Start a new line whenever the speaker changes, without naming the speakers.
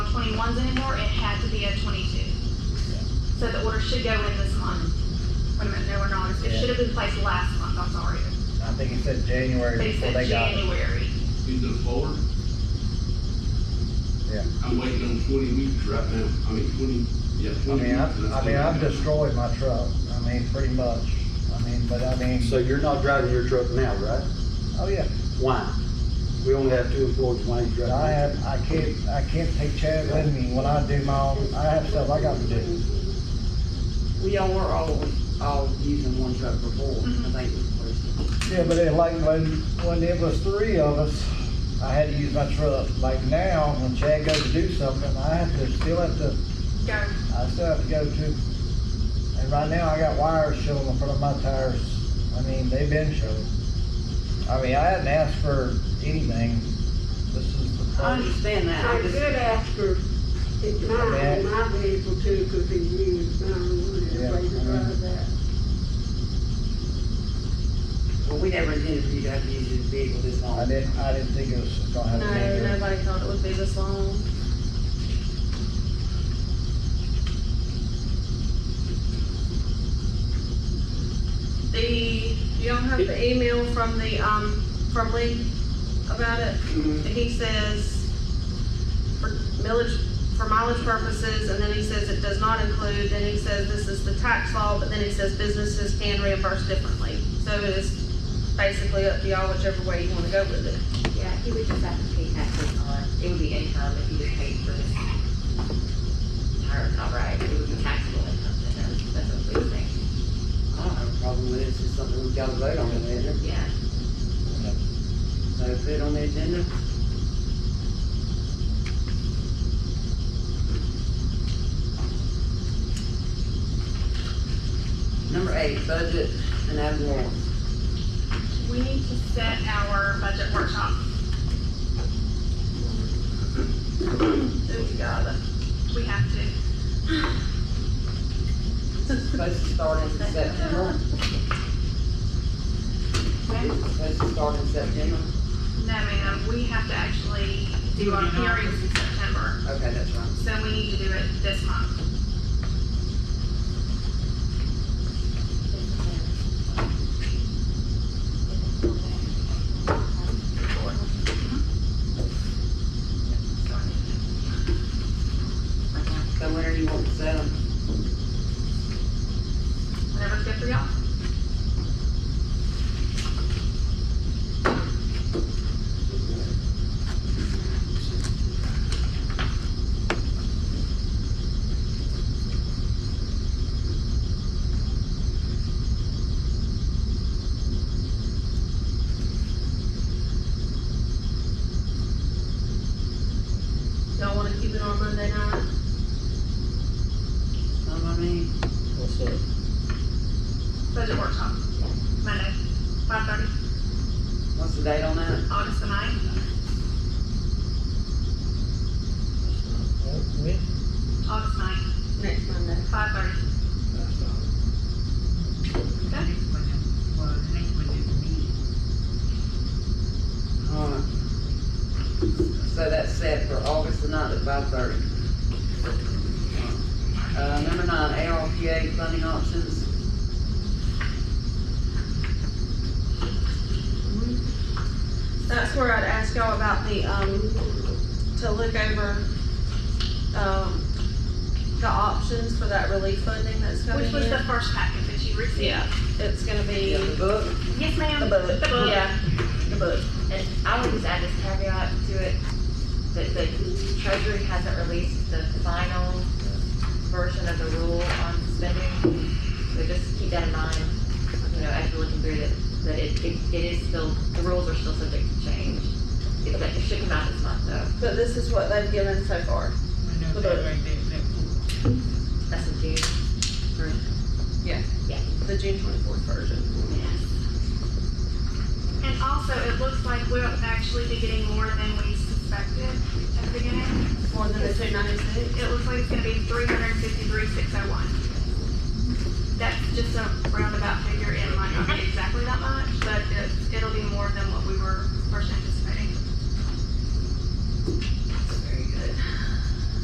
pounds anymore, it had to be at twenty-two. So the order should go in this month. Wait a minute, no, we're not, it
Yeah.
should have been placed last month, I'm sorry,
I think it said
but
January
it's
before
in
they got it.
January.
He's the forward.
Yeah.
I'm waiting on twenty weeks right now, I mean, twenty, yeah,
I
twenty.
mean, I,
weeks.
I mean, I've destroyed my truck, I mean, pretty much, I mean, but I mean,
So you're not driving your truck now, right?
oh yeah.
Why? We only have two employees, why you
But
driving?
I have, I can't, I can't take Chad with me when I do my own, I have stuff I gotta do.
We all were all, all using one truck before,
Mm-hmm.
Mhm.
I think was the first.
Yeah, but it like when, when it was three of us, I had to use my truck. Like now, when Chad goes to do something, I have to, still have to,
Go,
I still have to go to. And right now, I got wires showing in front of my tires. I mean, they've been showing. I mean, I hadn't asked for anything. This is the
I
first.
understand that,
I
I
did
just,
ask her, it's mine, and my vehicle too, could be used, and I wanted to pay to drive that.
well, we never intended for you to have to use this vehicle this long.
I didn't, I didn't think it was gonna have a
No,
major.
nobody thought it would be this long. The, you don't have the email from the, um, from Lee about it?
Mhm.
And he says, for millage, for mileage purposes, and then he says it does not include, then he says this is the tax law, but then he says businesses can reimburse differently. So it is basically up to y'all whichever way you wanna go with it.
Yeah, he would just have to pay taxes on, it would be income if he was paid for his tire, not right, it would be taxable income, then, that's- that's what we would think,
I don't have a problem with it, it's just something we gotta vote on later,
yeah.
so put it on the agenda. Number eight, budget and ad valorem.
we need to set our budget workshop. Ooh, God, we have to.
Supposed to start in September, supposed to start in September,
No, ma'am, we have to actually do our hearings in September,
okay, that's right.
so we need to do it this month. Mm-hmm.
So when are you wanting to set them?
Whatever's good for y'all.
Y'all wanna keep it on Monday night?
Know what Um, I mean?
What's up?
Budget workshop, Monday, five thirty,
What's the date on that?
August the ninth,
Well,
August ninth,
Next Monday.
five thirty. Okay,
Alright. So that's set for August the ninth at five thirty. Uh, number nine, ARPA funding options.
That's where I'd ask y'all about the, um, to look over, um, the options for that relief funding that's coming
which was the
in.
first packet that you received?
Yeah, it's gonna be
You have the
the
book?
Yes, ma'am.
book, yeah, the book.
And I would just add this caveat to it, that the treasury hasn't released the final version of the rule on spending. So just keep that in mind, you know, as you're looking through that, that it, it it is still, the rules are still subject to change. It, but it should come out this month though,
But this is what they've given so far. The book,
that's in June. Or-
the June twenty-fourth version.
And also, it looks like we'll actually be getting more than we suspected at the beginning.
More than the two ninety-six?
It looks like it's gonna be three hundred and fifty-three, six oh one. That's just a roundabout figure, it might not be exactly that much, but it's, it'll be more than what we were first anticipating.